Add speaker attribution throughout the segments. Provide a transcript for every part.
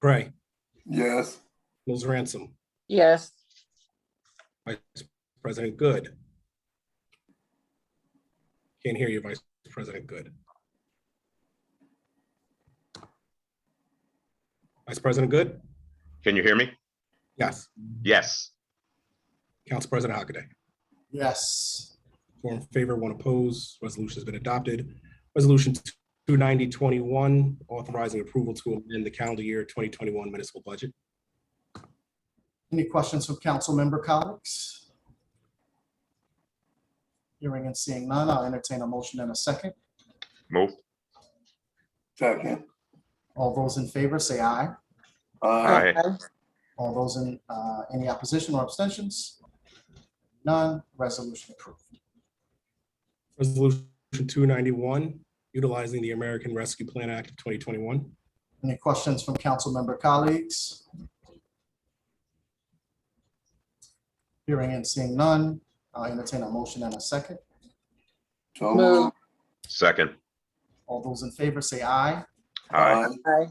Speaker 1: Gray,
Speaker 2: Yes.
Speaker 1: Mills Ransom,
Speaker 3: yes,
Speaker 1: Vice President Good. Can't hear you, Vice President Good. Vice President Good?
Speaker 4: Can you hear me?
Speaker 1: Yes.
Speaker 4: Yes.
Speaker 1: Council President Hockaday?
Speaker 5: Yes.
Speaker 1: Four in favor, one opposed. Resolution has been adopted. Resolution 29021, authorizing approval to amend the calendar year 2021 municipal budget.
Speaker 5: Any questions from council member colleagues? Hearing and seeing none, I'll entertain a motion in a second.
Speaker 4: Move.
Speaker 2: Second.
Speaker 5: All those in favor, say aye.
Speaker 2: Aye.
Speaker 4: Aye.
Speaker 5: All those in, uh, any opposition or abstentions? None, resolution approved.
Speaker 1: Resolution 291, utilizing the American Rescue Plan Act of 2021.
Speaker 5: Any questions from council member colleagues? Hearing and seeing none, I'll entertain a motion in a second.
Speaker 2: So
Speaker 3: Move.
Speaker 2: moved.
Speaker 4: Second.
Speaker 5: All those in favor, say aye.
Speaker 4: Aye.
Speaker 3: aye,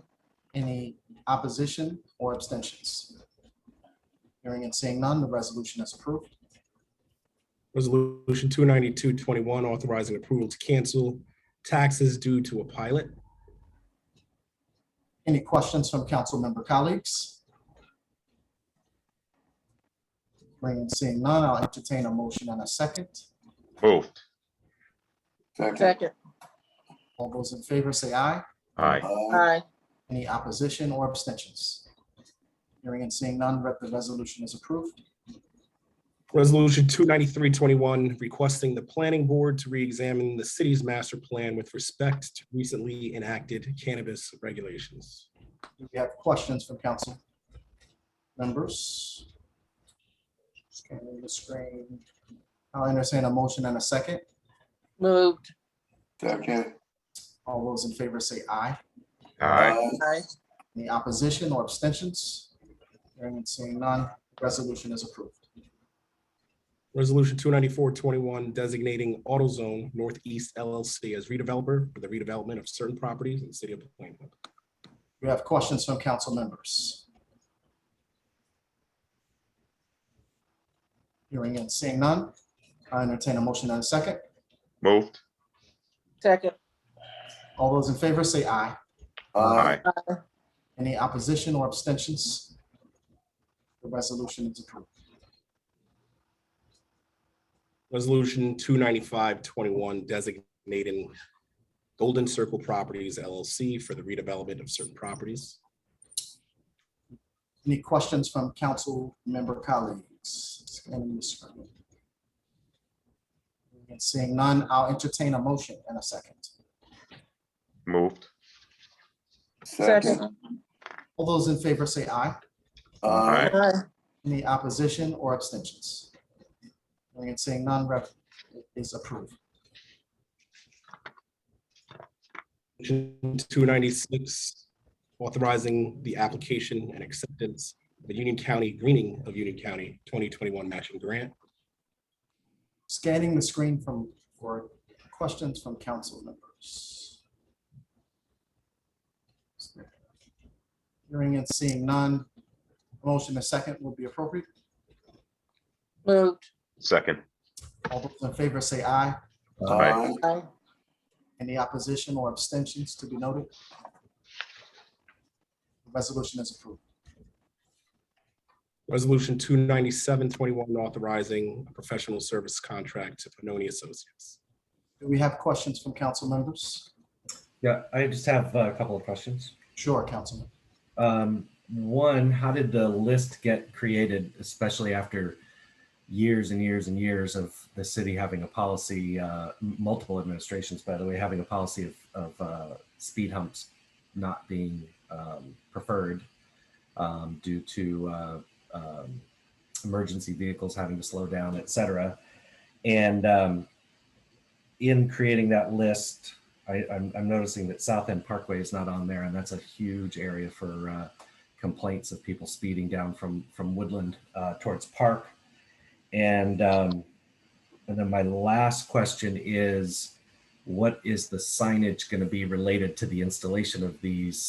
Speaker 5: Any opposition or abstentions? Hearing and seeing none, the resolution is approved.
Speaker 1: Resolution 29221, authorizing approval to cancel taxes due to a pilot.
Speaker 5: Any questions from council member colleagues? Hearing and seeing none, I'll entertain a motion in a second.
Speaker 4: Move.
Speaker 2: Second.
Speaker 3: second,
Speaker 5: All those in favor say aye.
Speaker 4: Aye.
Speaker 2: Aye.
Speaker 3: aye,
Speaker 5: Any opposition or abstentions? Hearing and seeing none, re- the resolution is approved.
Speaker 1: Resolution 29321, requesting the planning board to reexamine the city's master plan with respect to recently enacted cannabis regulations.
Speaker 5: Do we have questions from council members? Scanning the screen. I'll entertain a motion and a second.
Speaker 3: moved,
Speaker 2: Second.
Speaker 5: All those in favor say aye.
Speaker 4: Aye.
Speaker 3: aye,
Speaker 5: Any opposition or abstentions? Hearing and seeing none, resolution is approved.
Speaker 1: Resolution 29421, designating AutoZone Northeast LLC as redeveloper for the redevelopment of certain properties in the city of Plainville.
Speaker 5: We have questions from council members. Hearing and seeing none, I entertain a motion and a second.
Speaker 4: Moved.
Speaker 3: second,
Speaker 5: All those in favor say aye.
Speaker 4: Aye.
Speaker 5: Any opposition or abstentions? The resolution is approved.
Speaker 1: Resolution 29521, designating Golden Circle Properties LLC for the redevelopment of certain properties.
Speaker 5: Any questions from council member colleagues? Scanning the screen. And Seeing none, I'll entertain a motion in a second.
Speaker 4: Moved.
Speaker 2: Second.
Speaker 3: second,
Speaker 5: All those in favor say aye.
Speaker 2: Aye.
Speaker 3: aye,
Speaker 5: Any opposition or abstentions? Hearing And seeing none, rep is approved.
Speaker 1: Resolution 296, authorizing the application and acceptance of the Union County Greening of Union County 2021 matching grant.
Speaker 5: Scanning the screen from, for questions from council members. Hearing and seeing none, motion a second will be appropriate.
Speaker 3: moved,
Speaker 4: Second.
Speaker 5: All those in favor say aye.
Speaker 4: Aye.
Speaker 3: aye,
Speaker 5: Any opposition or abstentions to be noted? The Resolution is approved.
Speaker 1: Resolution 29721, authorizing a professional service contract to Panoni Associates.
Speaker 5: Do we have questions from council members?
Speaker 6: Yeah, I just have uh, a couple of questions.
Speaker 5: Sure, Councilman.
Speaker 6: Um, one, how did the list get created, especially after years and years and years of the city having a policy, uh, m- multiple administrations, by the way, having a policy of, of uh, speed humps not being um, preferred um, due to uh, um, emergency vehicles having to slow down, et cetera. And um, in creating that list, I, I'm, I'm noticing that South End Parkway is not on there, and that's a huge area for uh, complaints of people speeding down from from Woodland uh, towards Park. And um, and then my last question is, what is the signage going to be related to the installation of these